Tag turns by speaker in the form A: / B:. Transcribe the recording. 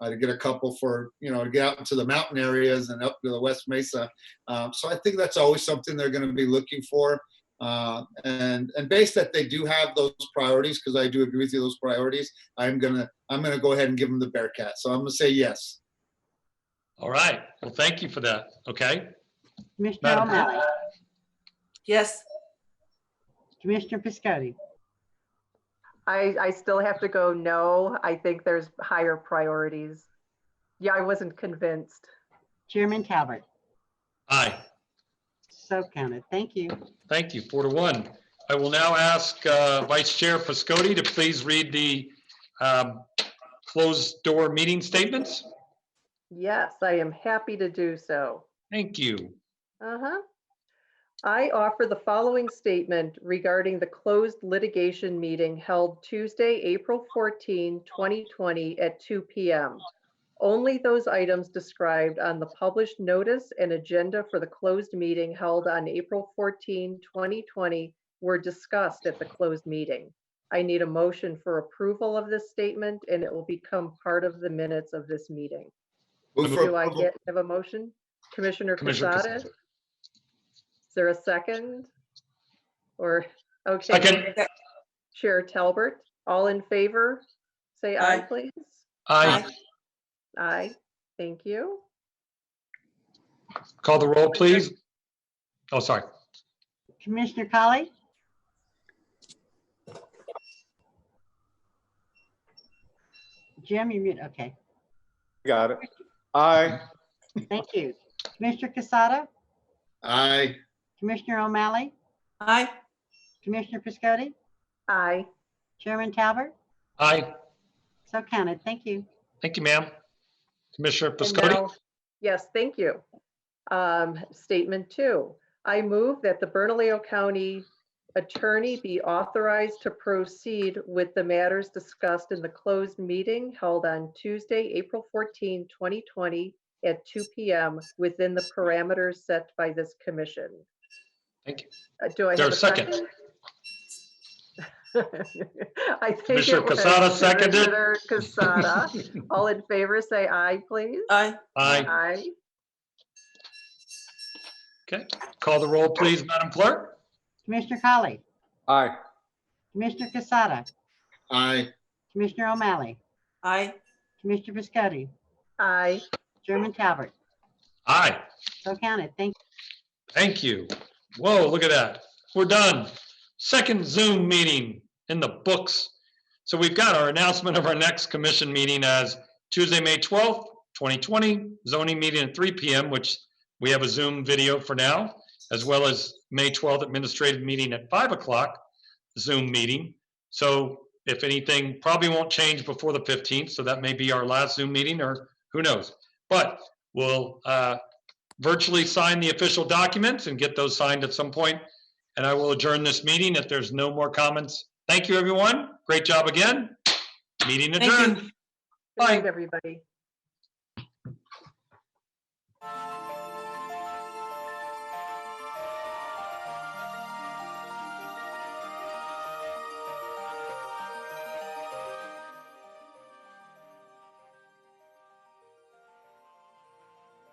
A: uh, to get a couple for you know to get out into the mountain areas and up to the West Mesa. Um, so I think that's always something they're going to be looking for. Uh, and and based that they do have those priorities, because I do agree with you, those priorities, I'm gonna I'm gonna go ahead and give them the Bearcat. So I'm gonna say yes.
B: All right. Well, thank you for that. Okay.
C: Commissioner
B: Madam Clerk?
C: O'Malley,
D: Yes,
C: Commissioner Piscotti,
E: I, I still have to go, no, I think there's higher priorities. Yeah, I wasn't convinced.
C: Chairman Talbot,
B: Aye.
C: so counted. Thank you.
B: Thank you. Four to one. I will now ask uh, Vice Chair Piscotti to please read the um, closed door meeting statements.
E: Yes, I am happy to do so.
B: Thank you.
E: Uh-huh. I offer the following statement regarding the closed litigation meeting held Tuesday, April 14, 2020 at 2 PM. Only those items described on the published notice and agenda for the closed meeting held on April 14, 2020 were discussed at the closed meeting. I need a motion for approval of this statement and it will become part of the minutes of this meeting.
A: Move for
E: Do I
A: approval.
E: get, have a motion? Commissioner
B: Commissioner
E: Casada?
B: Casada.
E: Is there a second? Or, okay,
B: Second.
E: Chair Talbert, all in favor? Say aye,
D: Aye.
E: please.
B: Aye.
E: Aye, thank you.
B: Call the roll, please. Oh, sorry.
C: Commissioner Colley, Jim, you mute, okay.
F: Got it. Aye.
C: Thank you. Commissioner Casada,
A: Aye.
C: Commissioner O'Malley,
D: aye,
C: Commissioner Piscotti,
E: Aye,
C: Chairman Talbot,
B: Aye.
C: so counted. Thank you.
B: Thank you, ma'am. Commissioner
E: And
B: Piscotti.
E: now- Yes, thank you. Um, Statement two, I move that the Bernalillo County Attorney be authorized to proceed with the matters discussed in the closed meeting held on Tuesday, April 14, 2020 at 2 PM within the parameters set by this commission.
B: Thank you.
E: Uh, Do I
B: Is there
E: have
B: a
E: a
B: second?
E: second? I think
B: Commissioner
E: it was
B: Casada seconded.
E: Commissioner Casada. All in favor, say aye, please.
D: aye,
B: Aye.
E: Aye.
B: Okay. Call the roll, please, Madam Clerk.
C: Commissioner Colley,
F: Aye.
C: Commissioner Casada,
A: Aye.
C: Commissioner O'Malley,
D: aye,
C: Commissioner Piscotti,
E: Aye.
C: Chairman Talbot,
B: Aye.
C: so counted. Thank
B: Thank you. Whoa, look at that. We're done. Second Zoom meeting in the books. So we've got our announcement of our next commission meeting as Tuesday, May 12th, 2020, zoning meeting at 3 PM, which we have a Zoom video for now, as well as May 12th administrative meeting at 5 o'clock, Zoom meeting. So if anything, probably won't change before the 15th, so that may be our last Zoom meeting, or who knows? But we'll uh, virtually sign the official documents and get those signed at some point. And I will adjourn this meeting if there's no more comments. Thank you, everyone. Great job again. Meeting
D: thank you.
B: adjourned.
E: Good night,
B: Bye.
E: everybody.
C: you.